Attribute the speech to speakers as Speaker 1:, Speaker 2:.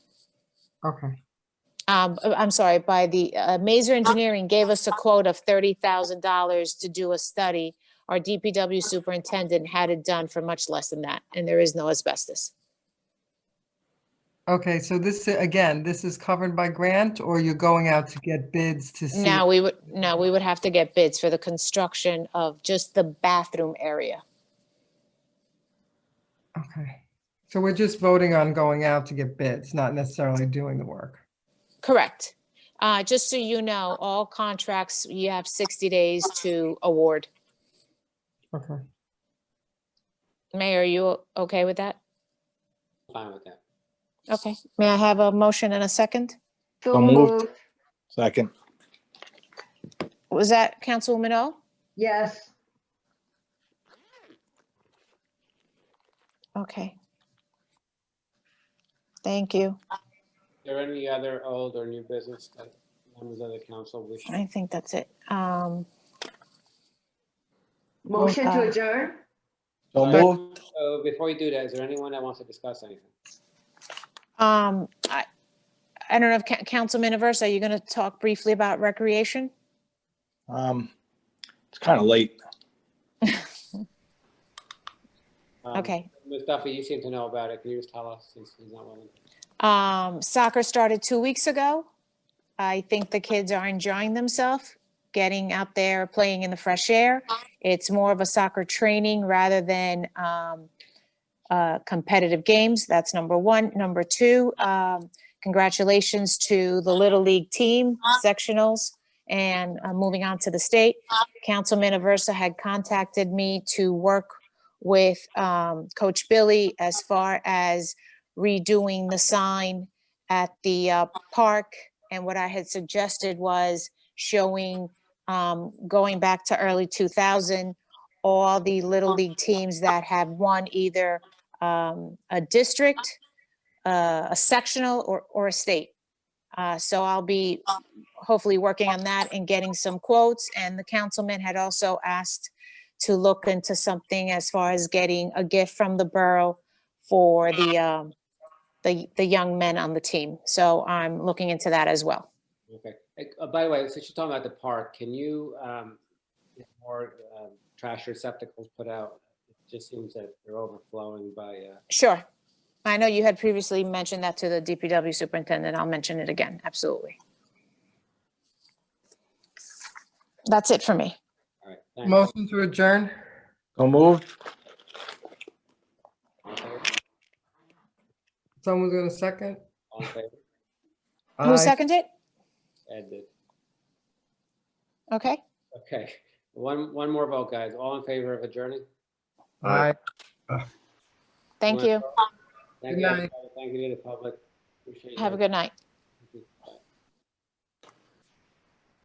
Speaker 1: Okay,
Speaker 2: um, uh, I'm sorry, by the, uh, Maser Engineering gave us a quote of thirty thousand dollars to do a study. Our DPW superintendent had it done for much less than that, and there is no asbestos.
Speaker 1: okay, so this, uh, again, this is covered by grant or you're going out to get bids to see?
Speaker 2: Now, we would, no, we would have to get bids for the construction of just the bathroom area.
Speaker 1: Okay, so we're just voting on going out to get bids, not necessarily doing the work.
Speaker 2: Correct. Uh, just so you know, all contracts, you have sixty days to award.
Speaker 1: Okay,
Speaker 2: Mayor, are you o- okay with that?
Speaker 3: Fine with that.
Speaker 2: Okay, may I have a motion and a second?
Speaker 4: So moved. Second.
Speaker 2: Was that Councilwoman O?
Speaker 5: Yes,
Speaker 2: Okay. Thank you.
Speaker 3: There any other old or new business that members of the council wish?
Speaker 2: I think that's it. Um,
Speaker 5: motion
Speaker 2: uh,
Speaker 5: to adjourn?
Speaker 4: So moved.
Speaker 3: So before you do that, is there anyone that wants to discuss anything?
Speaker 2: um, I, I don't know if Ca- Councilman Aversa, are you going to talk briefly about recreation?
Speaker 4: Um, it's kind of late.
Speaker 3: Um,
Speaker 2: Okay.
Speaker 3: Ms. Duffy, you seem to know about it. Can you just tell us since he's not willing?
Speaker 2: Um, soccer started two weeks ago. I think the kids are enjoying themselves, getting out there, playing in the fresh air. It's more of a soccer training rather than um, uh, competitive games. That's number one. Number two, um, congratulations to the Little League team sectionals and uh, moving on to the state. Councilman Aversa had contacted me to work with um, Coach Billy as far as redoing the sign at the uh, park. And what I had suggested was showing, um, going back to early 2000, all the Little League teams that have won either um, a district, uh, a sectional, or, or a state. Uh, So I'll be hopefully working on that and getting some quotes. And the councilman had also asked to look into something as far as getting a gift from the borough for the, um, the, the young men on the team. So I'm looking into that as well.
Speaker 3: Okay. Hey, uh, By the way, since you're talking about the park, can you um, get more um, trash receptacles put out? It just seems that they're overflowing by, uh,
Speaker 2: Sure. I know you had previously mentioned that to the DPW superintendent. I'll mention it again. Absolutely. That's it for me.
Speaker 3: all right. thanks.
Speaker 1: motion to adjourn?
Speaker 4: So moved.
Speaker 3: All in favor?
Speaker 1: Someone's gonna second?
Speaker 3: All in favor?
Speaker 1: Aye.
Speaker 2: Who seconded it?
Speaker 3: Ed did.
Speaker 2: Okay.
Speaker 3: Okay. One, one more vote, guys. All in favor of adjourning?
Speaker 1: Aye.
Speaker 2: Thank
Speaker 3: Wanna
Speaker 2: you.
Speaker 3: vote? Thank
Speaker 1: Good
Speaker 3: you.
Speaker 1: night.
Speaker 3: Thank you to the public. Appreciate
Speaker 2: Have a
Speaker 3: you.
Speaker 2: good night.